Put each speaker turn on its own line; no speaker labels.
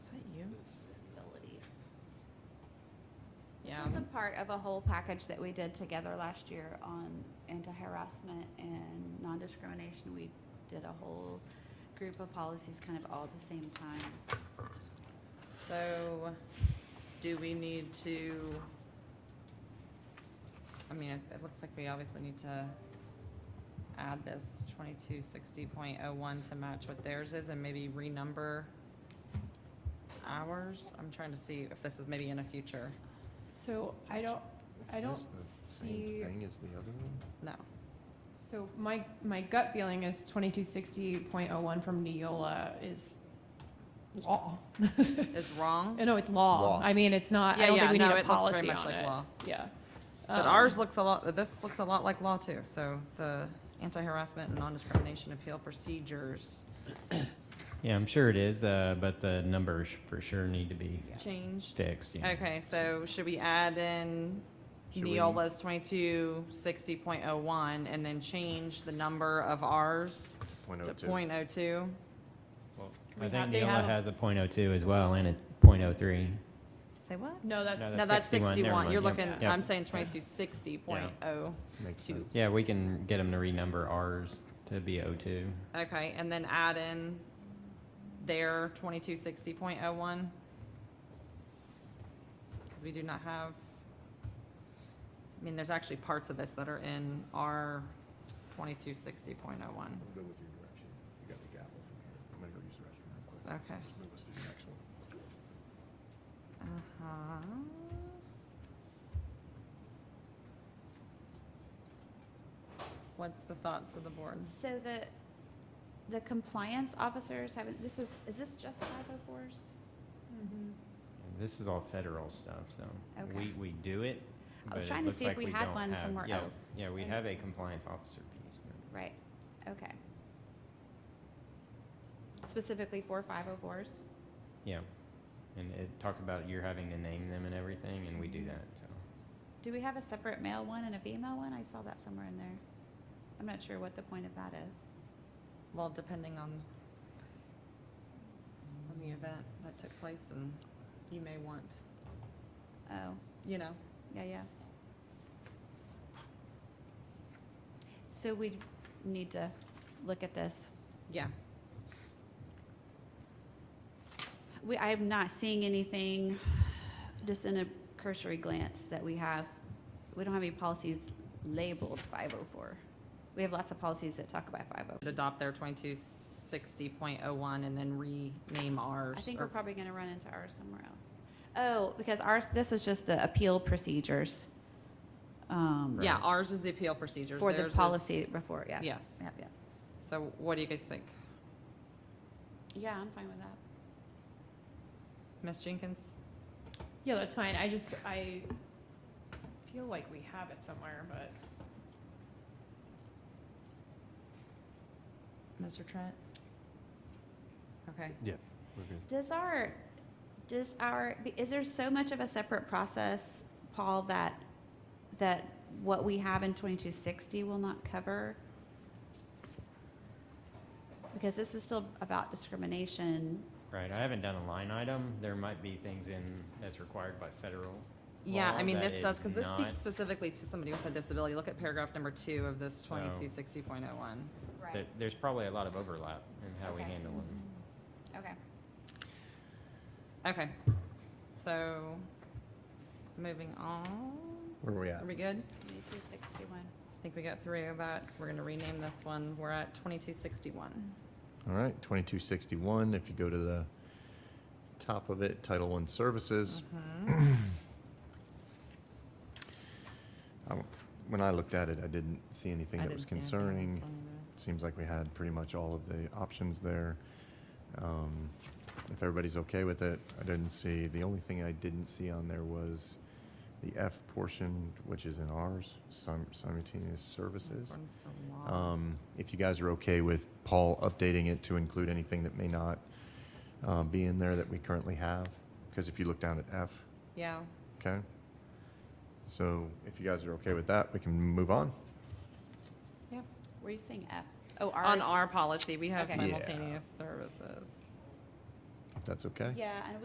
This
Yeah. um,
was a part of a whole package that we did together last year on anti-harassment and non-discrimination. We did a whole group of policies kind of all at the same time.
So, do we need to? I mean, it, it looks like we obviously need to add this twenty-two sixty point oh one to match what theirs is and maybe renumber ours. I'm trying to see if this is maybe in a future.
So I don't, I
Is
don't
this the
see-
Same thing as the other one?
No.
so my, my gut feeling is twenty-two sixty point oh one from Neola is law. Oh,
Is wrong,
No, it's law.
Law.
I mean, it's not,
Yeah,
I don't
yeah,
think we
no,
need
it
a
looks very
policy
much
on
like
it.
law.
Yeah.
but
Um,
ours looks a lot, this looks a lot like law too. So the anti-harassment and non-discrimination appeal procedures
Yeah, I'm sure it is, uh, but the numbers for sure need to be
changed.
fixed, yeah.
Okay, so should we add in
Should we-
Neola's twenty-two sixty point oh one and then change the number of ours
Point oh
to
two.
point oh two?
We
I
have-
think
they
Neola
have-
has a point oh two as well and a point oh three.
Say what?
Uh,
No, that's.
No,
No, that's
61, never
sixty-one.
mind,
You're
yep,
looking,
yep.
I'm saying twenty-two sixty point oh.
Makes
two.
sense.
Yeah, we can get them to renumber ours to be O two.
Okay, and then add in their twenty-two sixty point oh one? Because we do not have, I mean, there's actually parts of this that are in our twenty-two sixty point oh one.
I'll Go with your direction. You got the gavel from here. I'm gonna go use the restroom real quick.
Okay.
Just move us to the next one.
Uh-huh. What's the thoughts of the board?
So the, the compliance officers haven't, this is, is this just 504s?
Mhm.
This is all federal stuff, so
Okay.
we, we do it.
I was
but it
trying to
looks
see if
like
we had
don't
one
have-
somewhere
yeah,
else.
Yeah, we
Okay.
have a compliance officer piece. but-
Right, okay. Specifically for 504s?
Yeah, and it talks about you're having to name them and everything, and we
Mm-hmm.
do that, so.
Do we have a separate male one and a female one? I saw that somewhere in there. I'm not sure what the point of that is.
Well, depending on, on the event that took place and you may want,
Oh,
you know,
yeah, yeah. So we need to look at this.
yeah.
We, I am not seeing anything, just in a cursory glance, that we have, we don't have any policies labeled 504. We have lots of policies that talk about 504.
Adopt their twenty-two sixty point oh one and then rename ours.
I think
or-
we're probably going to run into ours somewhere else. Oh, because ours, this is just the appeal procedures. um,
Yeah, ours is the appeal procedures.
For the
theirs is-
policy before, yeah.
Yes.
Yep, yep.
So what do you guys think?
Yeah, I'm fine with that.
Ms. Jenkins?
Yeah, that's fine. I just, I feel like we have it somewhere, but
Mr. Trent? Okay.
Does our, does our, is there so much of a separate process, Paul, that, that what we have in 2260 will not cover? Because this is still about discrimination.
Right, I haven't done a line item. There might be things in, that's required by federal.
Yeah, I
law
mean,
that
this does,
is
because this
not-
speaks specifically to somebody with a disability. Look at paragraph number two of this
So-
twenty-two sixty point oh one.
that There's probably a lot of overlap in how we
Okay.
handle them.
Okay.
Okay, so, moving on,
Where are we at?
are we good?
2261.
I think we got three of that. We're gonna rename this one. We're at twenty-two sixty-one.
All right, twenty-two sixty-one, if you go to the top of it, Title One Services.
Mm-hmm.
I- When I looked at it, I didn't see anything that was concerning. Seems like we had pretty much all of the options there. Um, If everybody's okay with it, I didn't see, the only thing I didn't see on there was the F portion, which is in ours, sim- simultaneous services. Um, If you guys are okay with Paul updating it to include anything that may not uh, be in there that we currently have, because if you look down at F,
Yeah,
okay? So if you guys are okay with that, we can move on.
yeah.
Were you saying F? Oh, ours?
On our policy, we have
Okay.
Yeah.
simultaneous services.
If that's okay?
Yeah, and